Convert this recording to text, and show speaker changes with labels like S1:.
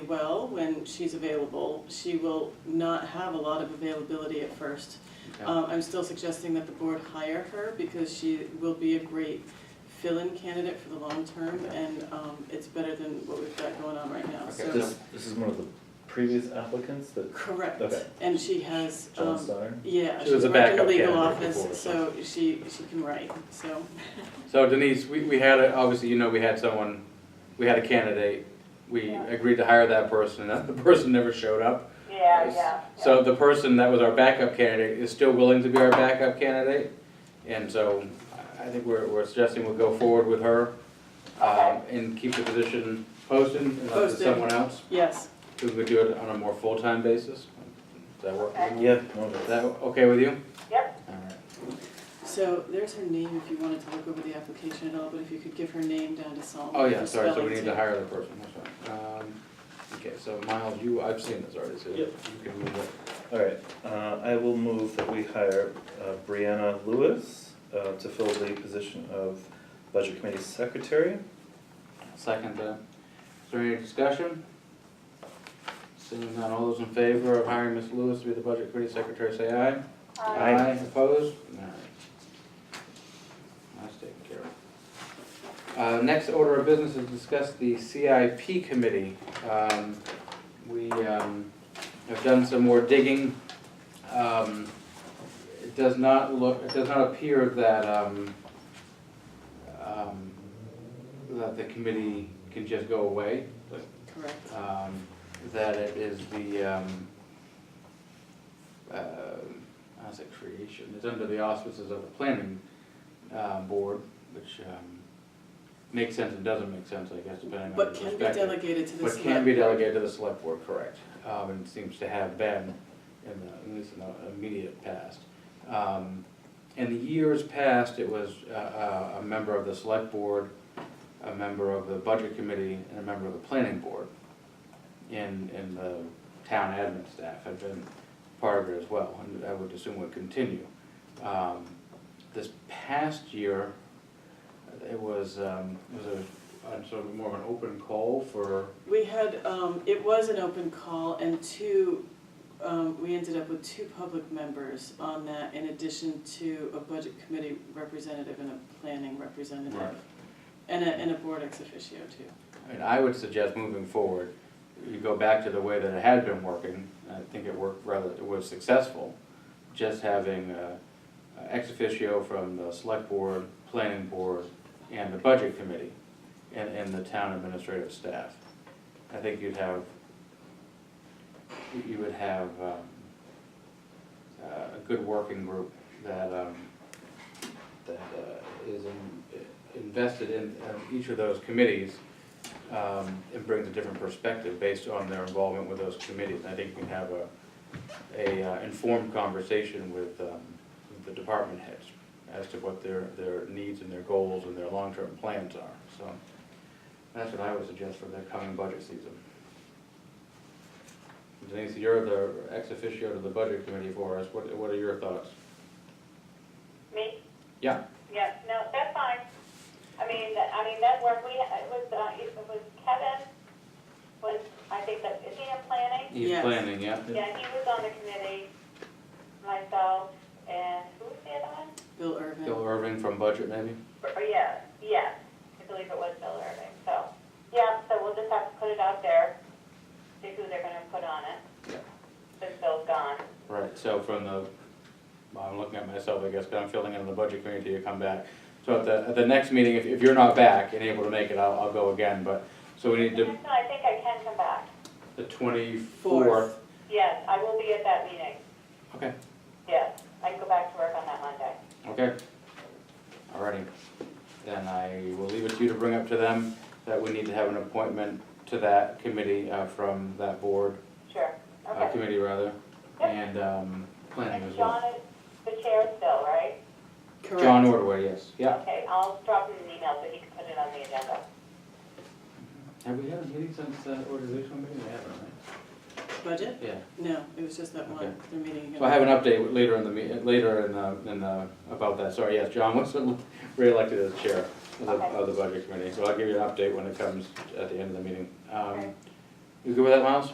S1: well when she's available. She will not have a lot of availability at first.
S2: Okay.
S1: Um, I'm still suggesting that the board hire her because she will be a great fill-in candidate for the long term and um, it's better than what we've got going on right now,
S2: Okay.
S1: so.
S3: This, this is one of the previous applicants that
S1: Correct,
S3: Okay.
S1: and she has,
S3: John
S1: um,
S3: Steiner?
S1: yeah,
S2: She
S1: she
S2: was a
S1: worked in the
S2: backup
S1: legal
S2: candidate before,
S1: office, so she, she can write, so.
S2: So Denise, we, we had, a- obviously, you know, we had someone, we had a candidate, we
S4: Yeah.
S2: agreed to hire that person, and the person never showed up.
S4: Yeah, yeah.
S2: So the person that was our backup candidate is still willing to be our backup candidate, and so I I think we're, we're suggesting we'll go forward with her, um, and keep the position posted unless it's
S1: Posted.
S2: someone else,
S1: Yes,
S2: who would do it on a more full-time basis. Does that work?
S4: Okay.
S3: Yeah, no,
S2: Is
S3: that's,
S2: that okay with you?
S4: Yep,
S2: All right.
S1: so there's her name if you wanted to look over the application at all, but if you could give her name down to Solomon.
S2: Oh, yeah,
S1: for
S2: sorry, so
S1: spelling
S2: we need
S1: too.
S2: to hire the person, that's fine. Um, Okay, so Miles, you, I've seen this already, so
S3: Yep.
S2: you can move it.
S3: all right, uh, I will move that we hire uh, Brianna Lewis, uh, to fill the position of Budget Committee Secretary.
S2: Second, uh, is there any discussion? Seeing none, all those in favor of hiring Ms. Lewis to be the budget committee secretary, say aye.
S4: um,
S3: Aye.
S2: Opposed? All right. That's taken care of. Uh, next order of business is discuss the CIP committee. Um, we, um, have done some more digging. Um, it does not look, it does not appear that, um, um, that the committee can just go away.
S1: Correct,
S2: Um, that it is the, um, uh, how's it creation, it's under the auspices of the planning, uh, board, which, um, makes sense and doesn't make sense, I guess, depending on the
S1: but can
S2: perspective.
S1: be delegated to the
S2: But
S1: select.
S2: can be delegated to the select board, correct, um, and seems to have been in the, at least in the immediate past. Um, in the years past, it was, uh, uh, a member of the select board, a member of the budget committee, and a member of the planning board. And, and the town admin staff had been part of it as well, and I would assume would continue. Um, this past year, it was, um, it was a, a sort of more of an open call for
S1: We had, um, it was an open call and two, um, we ended up with two public members on that in addition to a budget committee representative and a planning
S2: Right.
S1: representative. And a, and a board ex officio too.
S2: And I would suggest moving forward, you go back to the way that it had been working, and I think it worked rather, it was successful. Just having uh, ex officio from the select board, planning board, and the budget committee, and, and the town administrative staff. I think you'd have, you would have um, uh, a good working group that, um, that uh, is in- invested in um, each of those committees um, and brings a different perspective based on their involvement with those committees. I think we can have a, a uh, informed conversation with, um, with the department heads as to what their, their needs and their goals and their long-term plans are, so. That's what I would suggest for the coming budget season. Denise, you're the ex officio to the budget committee for us, what, what are your thoughts?
S4: me,
S2: Yeah,
S4: yeah, no, that's fine. I mean, that- I mean, that work, we, it was, uh, it was Kevin, was, I think that, is he in planning?
S2: he's
S1: Yes.
S2: planning, yeah?
S4: Yeah, he was on the committee, myself, and who was the other one?
S1: Bill Irvin.
S2: Bill Irving from budget, maybe?
S4: Or, yeah, yeah, I believe it was Bill Irving, so, yeah, so we'll just have to put it out there, see who they're gonna put on it.
S2: Yeah.
S4: Since Bill's gone.
S2: Right, so from the, well, I'm looking at myself, I guess, because I'm filling in the budget committee to come back. So at the, at the next meeting, if, if you're not back and able to make it, I'll, I'll go again, but, so we need
S4: No,
S2: to,
S4: I think I can come back.
S2: the twenty-fourth.
S4: Yes, I will be at that meeting.
S2: Okay,
S4: Yes, I can go back to work on that Monday.
S2: okay. Alrighty, then I will leave it to you to bring up to them that we need to have an appointment to that committee, uh, from that board,
S4: Sure,
S2: uh,
S4: okay.
S2: committee rather,
S4: Yep.
S2: and, um, planning
S4: And
S2: as well.
S4: John is the chair still, right?
S1: Correct.
S2: John Ordway, yes, yeah.
S4: Okay, I'll drop him an email so he can put it on the agenda.
S2: Have we had a meeting since, uh, organizational meeting? We haven't, right?
S1: Budget?
S2: Yeah.
S1: No, it was just that one,
S2: Okay.
S1: they're meeting again.
S2: So I have an update later in the, me- later in the, in the, about that, sorry, yes, John was reelected as chair of the,
S4: Okay.
S2: of the budget committee, so I'll give you an update when it comes at the end of the meeting. Um,
S4: Okay.
S2: You good with that, Miles?